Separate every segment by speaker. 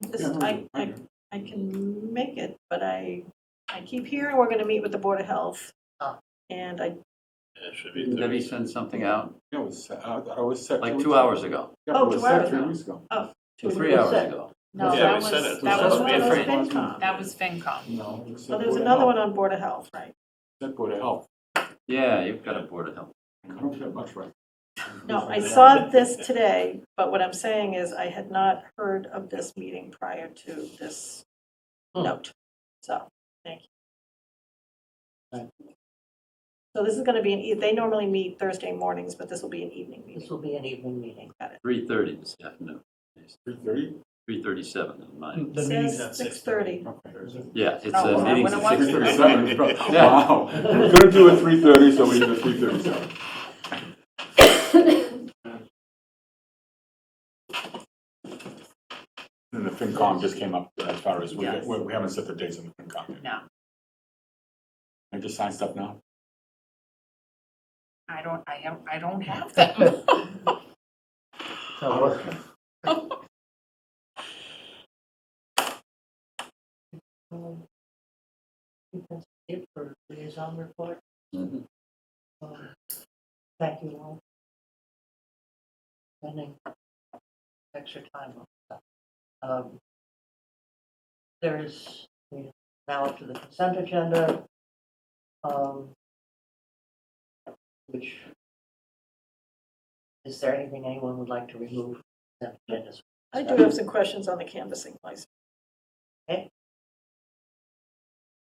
Speaker 1: This, I, I, I can make it, but I, I keep hearing we're gonna meet with the Board of Health.
Speaker 2: Oh.
Speaker 1: And I,
Speaker 3: It should be
Speaker 4: Didn't Debbie
Speaker 3: Thursday.
Speaker 4: send something out
Speaker 5: Yeah, it was, I thought it was set.
Speaker 4: like two hours ago,
Speaker 5: Yeah,
Speaker 1: Oh,
Speaker 5: it was
Speaker 1: two
Speaker 5: set
Speaker 1: hours
Speaker 5: three
Speaker 1: ago.
Speaker 5: weeks ago.
Speaker 4: two,
Speaker 1: It
Speaker 4: three
Speaker 1: was
Speaker 4: hours
Speaker 1: set.
Speaker 4: ago.
Speaker 2: No,
Speaker 3: Yeah,
Speaker 2: that
Speaker 3: we
Speaker 2: was,
Speaker 3: said it.
Speaker 2: that
Speaker 3: We
Speaker 2: was
Speaker 3: said
Speaker 2: one
Speaker 3: it.
Speaker 2: of those
Speaker 4: Different.
Speaker 2: FinCom. That was FinCom.
Speaker 5: No. it was
Speaker 1: well, there's
Speaker 5: set Board of
Speaker 1: another
Speaker 5: Health.
Speaker 1: one on Board of Health, right?
Speaker 5: Set Board of Health.
Speaker 4: Yeah, you've got a board of health.
Speaker 5: I don't get much right.
Speaker 1: No, I saw this today, but what I'm saying is I had not heard of this meeting prior to this
Speaker 2: Hmm.
Speaker 1: note. So, thank you.
Speaker 2: Right.
Speaker 1: So this is gonna be, an e- they normally meet Thursday mornings, but this will be an evening meeting.
Speaker 2: This will be an evening meeting.
Speaker 4: Three thirty this afternoon,
Speaker 5: Three thirty?
Speaker 4: three thirty-seven in mine.
Speaker 6: The meeting's at
Speaker 1: Six thirty.
Speaker 5: Okay.
Speaker 4: Yeah, it's
Speaker 1: Hmm. Oh,
Speaker 4: a
Speaker 1: well,
Speaker 4: meeting
Speaker 1: when
Speaker 4: at
Speaker 1: I watched-
Speaker 4: six thirty-seven.
Speaker 5: 3:37. Wow.
Speaker 4: Yeah.
Speaker 5: We Couldn't do it three thirty, so we did three thirty-seven. And the FinCom just came up as far as, we,
Speaker 2: Yes.
Speaker 5: we we haven't set the dates on the FinCom yet.
Speaker 2: No,
Speaker 5: I just signed stuff now.
Speaker 2: I don't, I don't, I don't have them.
Speaker 6: So
Speaker 2: Um, I think that's It for liaison report.
Speaker 4: Mhm.
Speaker 2: Um, Thank you all. Spending extra time on that. Um, There is, we are now up to the consent agenda. um, Which, is there anything anyone would like to remove from the consent agenda?
Speaker 1: I do have some questions on the canvassing license.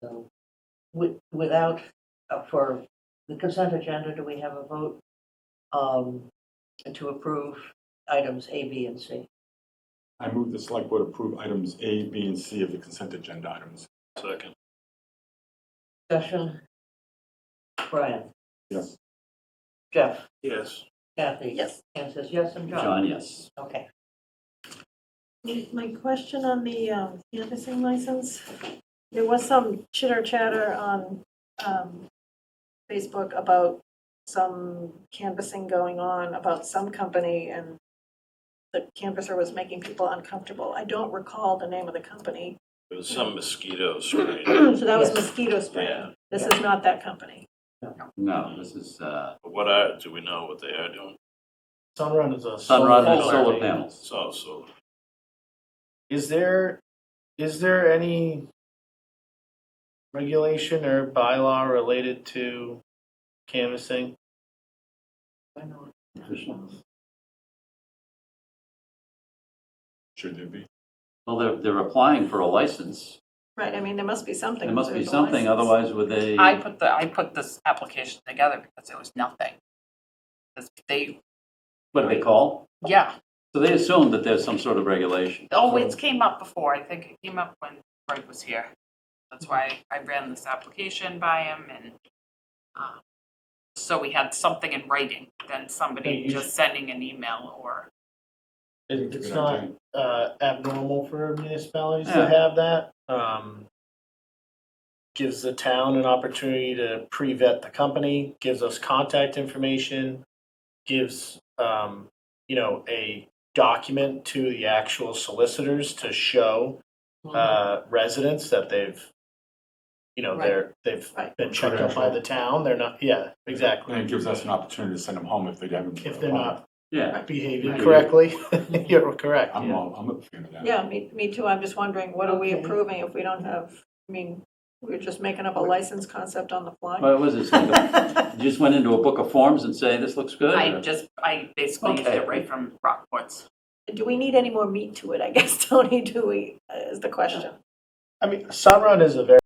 Speaker 2: So, with, without, uh, for the consent agenda, do we have a vote um, to approve items A, B, and C?
Speaker 5: I move the select board approve items A, B, and C of the consent agenda items.
Speaker 3: Second.
Speaker 2: Discussion? Brian,
Speaker 5: Yes.
Speaker 2: Jeff,
Speaker 3: Yes.
Speaker 2: Kathy?
Speaker 1: Yes.
Speaker 2: Anne says yes, and John?
Speaker 4: John, yes.
Speaker 2: Okay.
Speaker 1: My question on the um, canvassing license, there was some chitter chatter on um, Facebook about some canvassing going on about some company and the canvasser was making people uncomfortable. I don't recall the name of the company.
Speaker 3: It was some mosquito spray.
Speaker 1: So that was
Speaker 2: Yes.
Speaker 1: mosquito spray.
Speaker 3: Yeah.
Speaker 1: This is not that company.
Speaker 4: No, this is, uh,
Speaker 3: But What are, do we know what they are doing?
Speaker 6: Sunrun is a.
Speaker 4: Sunrun and
Speaker 6: solar
Speaker 4: solar
Speaker 6: array.
Speaker 4: panels.
Speaker 3: It's all solar.
Speaker 6: Is there, is there any regulation or bylaw related to canvassing?
Speaker 2: Why not?
Speaker 5: Should there be?
Speaker 4: Well, they're, they're applying for a license.
Speaker 1: Right, I mean, there must be something.
Speaker 4: There must be
Speaker 1: There's a
Speaker 4: something,
Speaker 1: license.
Speaker 4: otherwise would they,
Speaker 7: I put the, I put this application together because it was nothing. 'Cause They,
Speaker 4: what do they call?
Speaker 7: yeah,
Speaker 4: So they assume that there's some sort of regulation.
Speaker 7: oh, it came up before, I think it came up when Greg was here. That's why I ran this application by him and, um, so we had something in writing than
Speaker 6: Hey,
Speaker 7: somebody
Speaker 6: you
Speaker 7: just sending an email or,
Speaker 6: It- It's not uh, abnormal for municipalities
Speaker 4: Yeah.
Speaker 6: to have that. Um, Gives the town an opportunity to pre-vet the company, gives us contact information, gives, um, you know, a document to the actual solicitors to show uh, residents that they've, you know,
Speaker 2: Right.
Speaker 6: they're, they've
Speaker 1: Right.
Speaker 6: been checked out by the town, they're not, yeah, exactly.
Speaker 5: And it gives us an opportunity to send them home if they haven't.
Speaker 6: If they're not
Speaker 4: Yeah,
Speaker 6: behaving
Speaker 5: Right.
Speaker 6: correctly, you're correct.
Speaker 5: I'm
Speaker 6: yeah.
Speaker 5: all, I'm a fan of that.
Speaker 1: Yeah, me, me too. I'm just wondering, what are we
Speaker 2: Okay.
Speaker 1: approving if we don't have, I mean, we're just making up a license concept on the fly?
Speaker 4: but it was, it's like, a- you just went into a book of forms and say, this looks good?
Speaker 7: I
Speaker 4: or-
Speaker 7: just, I basically used
Speaker 4: Okay.
Speaker 7: it right from Rockport's.
Speaker 1: Do we need any more meat to it, I guess, Tony, do we, is the question.
Speaker 6: I mean, Sunrun is a very